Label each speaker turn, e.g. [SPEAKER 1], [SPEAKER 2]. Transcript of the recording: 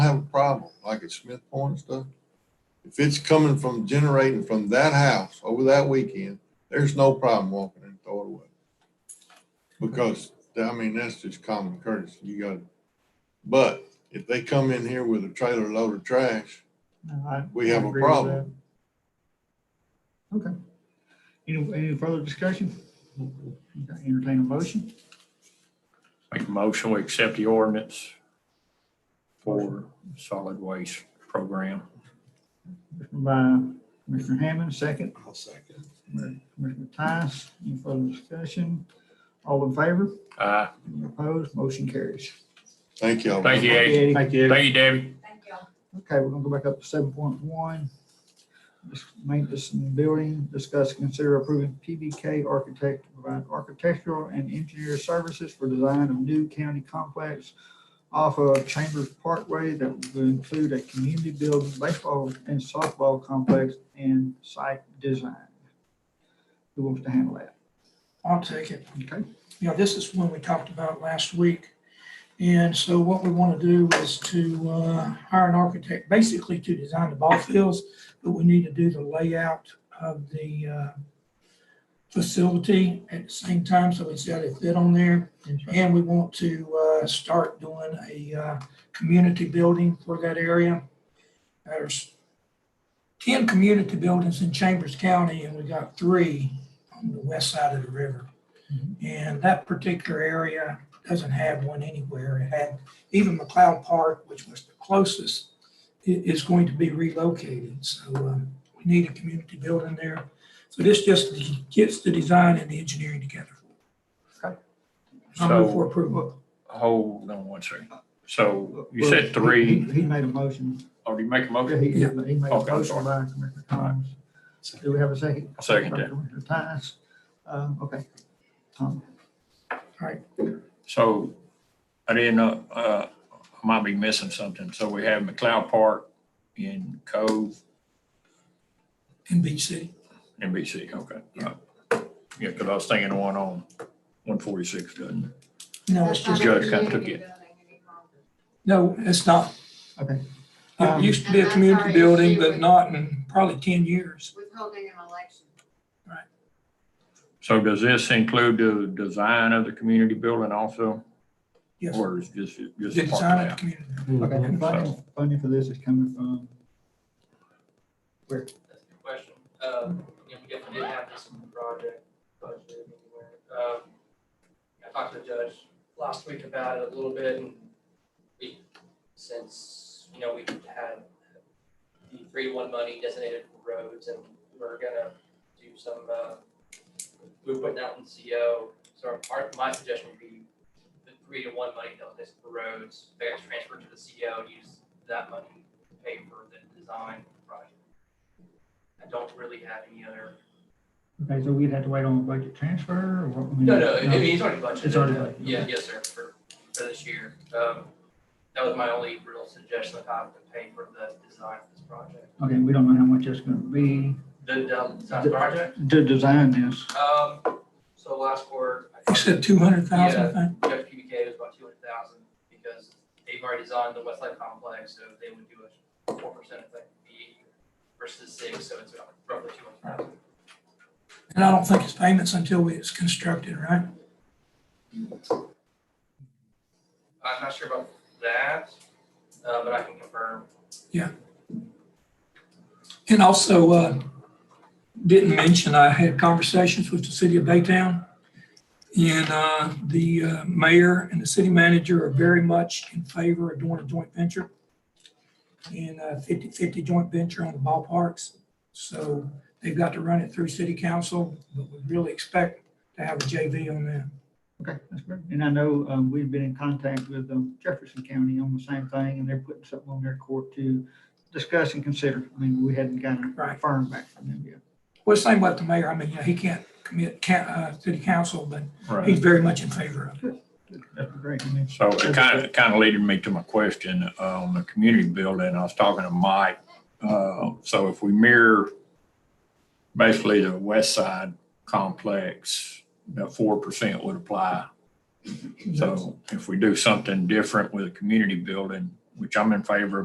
[SPEAKER 1] have a problem, like at Smith Point and stuff, if it's coming from generating from that house over that weekend, there's no problem walking in and throw it away. Because, I mean, that's just common courtesy. You got, but if they come in here with a trailer load of trash,
[SPEAKER 2] No, I-
[SPEAKER 1] We
[SPEAKER 2] I
[SPEAKER 1] have a
[SPEAKER 2] agree with
[SPEAKER 1] problem.
[SPEAKER 2] that. Okay. Any, any further discussion? Okay, Entertain a motion?
[SPEAKER 3] Make a motion, we accept the ordinance for solid waste program.
[SPEAKER 2] By Commissioner Hammond, second.
[SPEAKER 4] I'll second.
[SPEAKER 2] by Commissioner Tice, any further discussion? All in favor?
[SPEAKER 3] Uh,
[SPEAKER 2] Any Opposed? Motion carries.
[SPEAKER 1] thank y'all.
[SPEAKER 3] Thank you, Eddie.
[SPEAKER 2] Eddie.
[SPEAKER 4] Thank you.
[SPEAKER 3] Thank you, Debbie.
[SPEAKER 5] Thank y'all.
[SPEAKER 2] Okay, we're gonna go back up to seven point one. Maintenance and building, discuss, consider approving PBK Architect to provide architectural and engineer services for design of new county complex off of Chambers Parkway that will include a community building, baseball and softball complex and site design. Who wants to handle that?
[SPEAKER 6] I'll take it.
[SPEAKER 2] Okay,
[SPEAKER 6] You know, this is one we talked about last week. And so what we want to do is to uh, hire an architect, basically to design the ball fields, but we need to do the layout of the uh, facility at the same time, so it's got to fit on there. And we want to uh, start doing a uh, community building for that area. There's 10 community buildings in Chambers County, and we got three on the west side of the river. And that particular area doesn't have one anywhere. It had, even McLeod Park, which was the closest, i- is going to be relocated. So um, we need a community building there. So this just gets the design and the engineering together. I move for
[SPEAKER 3] So,
[SPEAKER 6] approval.
[SPEAKER 3] hold on one second. So you said three,
[SPEAKER 2] He he made a motion.
[SPEAKER 3] or do you make a
[SPEAKER 2] Yeah,
[SPEAKER 3] motion?
[SPEAKER 2] He he made a
[SPEAKER 3] Okay, I'm
[SPEAKER 2] motion
[SPEAKER 3] sorry.
[SPEAKER 2] by Commissioner Thomas. Do we have a second?
[SPEAKER 3] I'll Second
[SPEAKER 2] By
[SPEAKER 3] that.
[SPEAKER 2] Commissioner Tice. Uh, okay. Tom,
[SPEAKER 3] So I didn't know, uh, I might be missing something. So we have McLeod Park in Cove,
[SPEAKER 6] In Beach City.
[SPEAKER 3] NBC, okay. Uh, Yeah, because I was thinking the one on one forty-six, doesn't it?
[SPEAKER 6] No, it's just,
[SPEAKER 3] Judge kind of took it.
[SPEAKER 6] no, it's not.
[SPEAKER 2] Okay.
[SPEAKER 6] It used to be a community building, but not in probably 10 years.
[SPEAKER 5] Withholding an election.
[SPEAKER 3] So does this include the design of the community building also?
[SPEAKER 6] Yes.
[SPEAKER 3] Or is just,
[SPEAKER 6] The
[SPEAKER 3] just the park
[SPEAKER 6] design of the
[SPEAKER 3] layout?
[SPEAKER 6] community.
[SPEAKER 2] Okay, and funding, funding for this is coming from,
[SPEAKER 7] That's a good question. Um, you know, we definitely didn't have this in the project budget anywhere. Um, I talked to the judge last week about it a little bit and we, since, you know, we had the three one money designated for roads and we're gonna do some, uh, we're putting out in CO. So our, our- my suggestion would be the three to one money designated for roads, they got transferred to the CO, use that money to pay for the design project. I don't really have any other.
[SPEAKER 2] okay, so we'd have to wait on a budget transfer or what?
[SPEAKER 7] No, no, I mean, it's already budgeted.
[SPEAKER 2] It's already budgeted,
[SPEAKER 7] Yeah, yes, sir, for, for this year. Um, that was my only real suggestion of how to pay for the design of this project.
[SPEAKER 2] Okay, we don't know how much it's gonna be
[SPEAKER 7] The, the design project,
[SPEAKER 2] to design this.
[SPEAKER 7] um, so last quarter. I
[SPEAKER 6] You
[SPEAKER 7] talked
[SPEAKER 6] said 200,000, I think.
[SPEAKER 7] to Jeff PBK was about two hundred thousand because they've already designed the Westlake complex, so they would do a four percent effect fee versus six, so it's about roughly two hundred thousand.
[SPEAKER 6] And I don't think it's payments until it's constructed, right?
[SPEAKER 7] I'm not sure about that, uh, but I can confirm.
[SPEAKER 6] And also, uh, didn't mention, I had conversations with the city of Baytown. And uh, the uh, mayor and the city manager are very much in favor of doing a joint venture. And a 50-50 joint venture on the ballparks. So they've got to run it through city council, but we really expect to have a JV on that.
[SPEAKER 2] Okay, that's great. And I know, um, we've been in contact with um, Jefferson County on the same thing and they're putting something on their court to discuss and consider. I mean, we hadn't gotten a
[SPEAKER 6] Right.
[SPEAKER 2] firm back from them yet.
[SPEAKER 6] Well, same with the mayor. I mean, you know, he can't commit, can't, uh, city council, but
[SPEAKER 3] Right.
[SPEAKER 6] he's very much in favor of it.
[SPEAKER 2] That'd be Great. I mean,
[SPEAKER 3] So it kind of, kind of leaded me to my question uh, on the community building. I was talking to Mike. Uh, So if we mirror basically the west side complex, that four percent would apply. So if we do something different with a community building, which I'm in favor of.